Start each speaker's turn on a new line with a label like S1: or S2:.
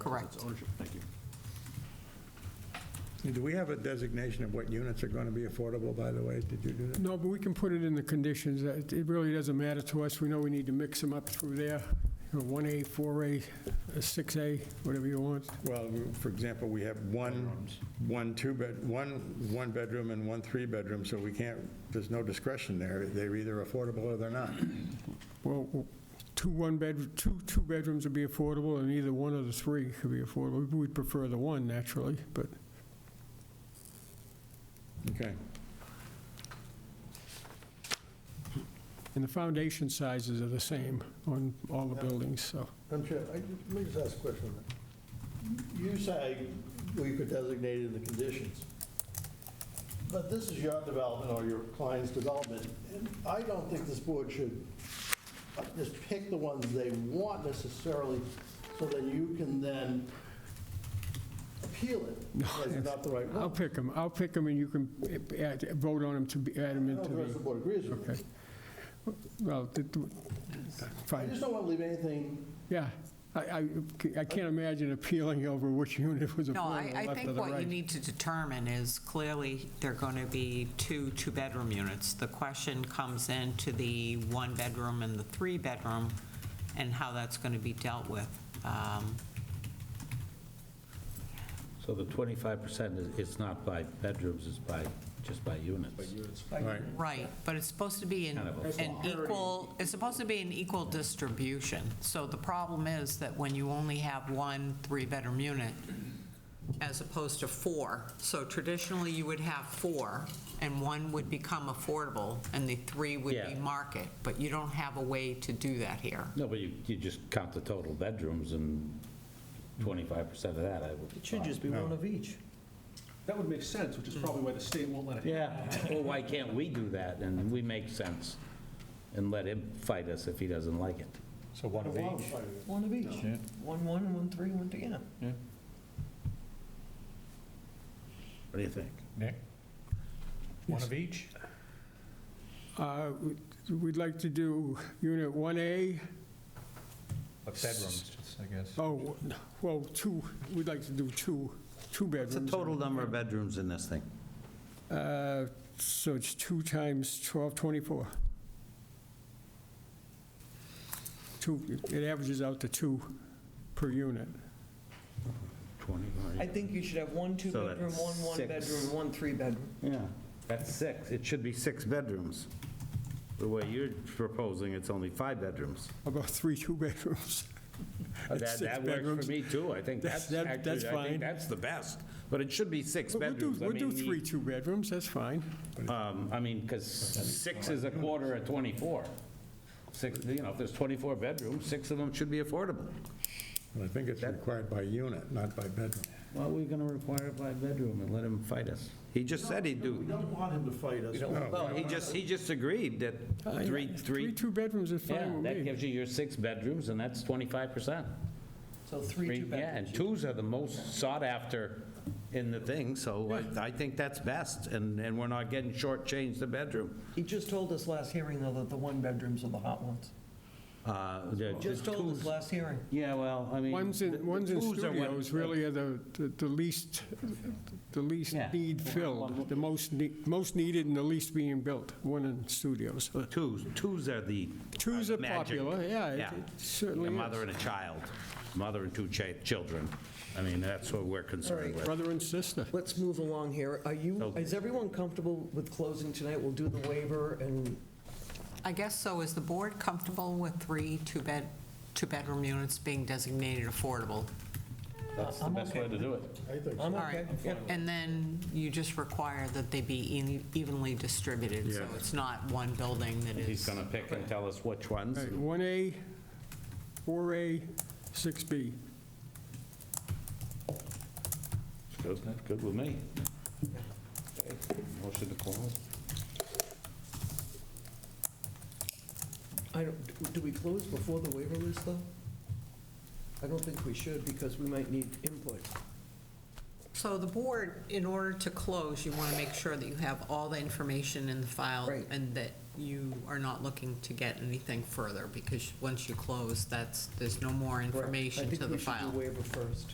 S1: Correct.
S2: It's ownership, thank you.
S3: Do we have a designation of what units are going to be affordable, by the way? Did you do that?
S4: No, but we can put it in the conditions. It it really doesn't matter to us. We know we need to mix them up through there, You know, 1A, 4A, 6A, whatever you want.
S3: Well, for example, we have one, one two-bed, one, one-bedroom and one three-bedroom, so we can't, there's no discretion there. They're either affordable or they're not.
S4: Well, two one-bed, two two-bedrooms would be affordable, and either one of the three could be affordable. We'd prefer the one, naturally, but
S3: Okay.
S4: And the foundation sizes are the same on all the buildings, so.
S5: Madam Chair, I- let me just ask a question. on that. You say we could designate in the conditions, but this is your development or your client's development. and I don't think this board should uh, just pick the ones they want necessarily, so that you can then appeal it. That's not the right one.
S4: I'll pick them, I'll pick them, and you can eh, add- vote on them to be, add them
S5: I don't
S4: into
S5: know if the rest of the
S4: the,
S5: board agrees with me.
S4: okay. Well, th- th-
S5: I
S4: fine,
S5: just don't want to leave anything,
S4: yeah. I, I I can't imagine appealing over which unit was
S1: No, I, I
S4: affordable, left or
S1: think
S4: the
S1: what you
S4: right.
S1: need to determine is clearly there are going to be two two-bedroom units. The question comes into the one-bedroom and the three-bedroom and how that's going to be dealt with. Um,
S6: So the 25% is, it's not by bedrooms, it's by, just by units?
S3: Right.
S1: Right, but it's supposed to be an
S6: Kind of
S1: an equal, it's supposed to be an equal distribution. So the problem is that when you only have one three-bedroom unit as opposed to four, so traditionally you would have four, and one would become affordable, and the three would be
S6: Yeah.
S1: market, but you don't have a way to do that here.
S6: No, but you, you just count the total bedrooms and 25% of that, I would.
S7: It should just be one of each. Mm.
S2: That would make sense, which is probably why the state won't let it happen.
S6: Yeah, well, why can't we do that? And we make sense and let him fight us if he doesn't like it.
S8: So one of each.
S7: One of each. One, one, one, three, one, two, yeah.
S6: What do you think?
S8: Nick? One of each?
S4: Uh, We'd like to do unit 1A,
S8: Of bedrooms, I guess.
S4: oh, well, two, we'd like to do two, two bedrooms.
S6: What's the total number of bedrooms in this thing?
S4: Uh, So it's two times 1224. Two, it averages out to two per unit.
S6: 20,
S7: I think you should have one
S6: So
S7: two-bedroom,
S6: that's
S7: one
S6: six.
S7: one-bedroom, one three-bedroom.
S6: Yeah, that's six. It should be six bedrooms. The way you're proposing, it's only five bedrooms.
S4: About three two-bedrooms.
S6: Oh, That,
S4: It's six
S6: that works
S4: bedrooms.
S6: for me too. I think
S4: That's-
S6: that's
S4: that- that's
S6: actually, I
S4: fine.
S6: think that's the best. But it should be six
S4: But We'll do,
S6: bedrooms. I
S4: we'll do
S6: mean, the-
S4: three two-bedrooms, that's fine.
S6: Um, I mean, because six is a quarter of 24. Six, you know, if there's 24 bedrooms, six of them should be affordable.
S3: Well, I think it's required by unit, not by bedroom.
S6: Well, we're going to require a five-bedroom and let him fight us. He just said he'd
S5: we
S6: do.
S5: don't want him to fight us.
S6: Well, he just, he just agreed that three,
S4: Uh, Three
S6: three,
S4: two-bedrooms is
S6: yeah,
S4: fine with
S6: that
S4: me.
S6: gives you your six bedrooms, and that's 25%.
S7: So three
S6: Three- Yeah,
S7: two-bedrooms.
S6: and twos are the most sought after in the thing, so I- I think that's best, and, and we're not getting shortchanged the bedroom.
S7: He just told us last hearing, though, that the one-bedrooms are the hot ones.
S6: Uh, the- the
S7: Just told us
S6: twos-
S7: last hearing.
S6: Yeah, well, I mean.
S4: Ones in,
S6: the-
S4: ones in
S6: the twos are what-
S4: studios really are the, the- the least, the least
S6: Yeah.
S4: need filled, the most, ne- most needed and the least being built, one in studios.
S6: Twos, twos are the.
S4: Twos are
S6: magic.
S4: popular, yeah, it-
S6: Yeah.
S4: it certainly
S6: A
S4: is.
S6: mother and a child, mother and two cha- children. I mean, that's what we're concerned with.
S4: Brother and sister.
S7: Let's move along here. Are you,
S6: Okay.
S7: is everyone comfortable with closing tonight? We'll do the waiver and
S1: I guess so, is the board comfortable with three two-bed, two-bedroom units being designated affordable?
S6: That's the
S7: I'm
S6: best
S7: okay
S6: way to
S7: with
S6: do it.
S7: I'm
S1: All right,
S7: okay. Yeah.
S1: and then you just require that they be e- evenly distributed, so
S3: Yeah.
S1: it's not one building that is.
S6: He's going to pick and tell us which ones.
S4: All right, 1A, 4A, 6B.
S6: Good, good with me. Motion to close.
S7: I don't, do we close before the waiver list, though? I don't think we should, because we might need input.
S1: So the board, in order to close, you want to make sure that you have all the information in the file
S7: Right.
S1: and that you are not looking to get anything further, because once you close, that's, there's no more
S7: Correct.
S1: information to the
S7: I
S1: file.
S7: think we should do waiver first.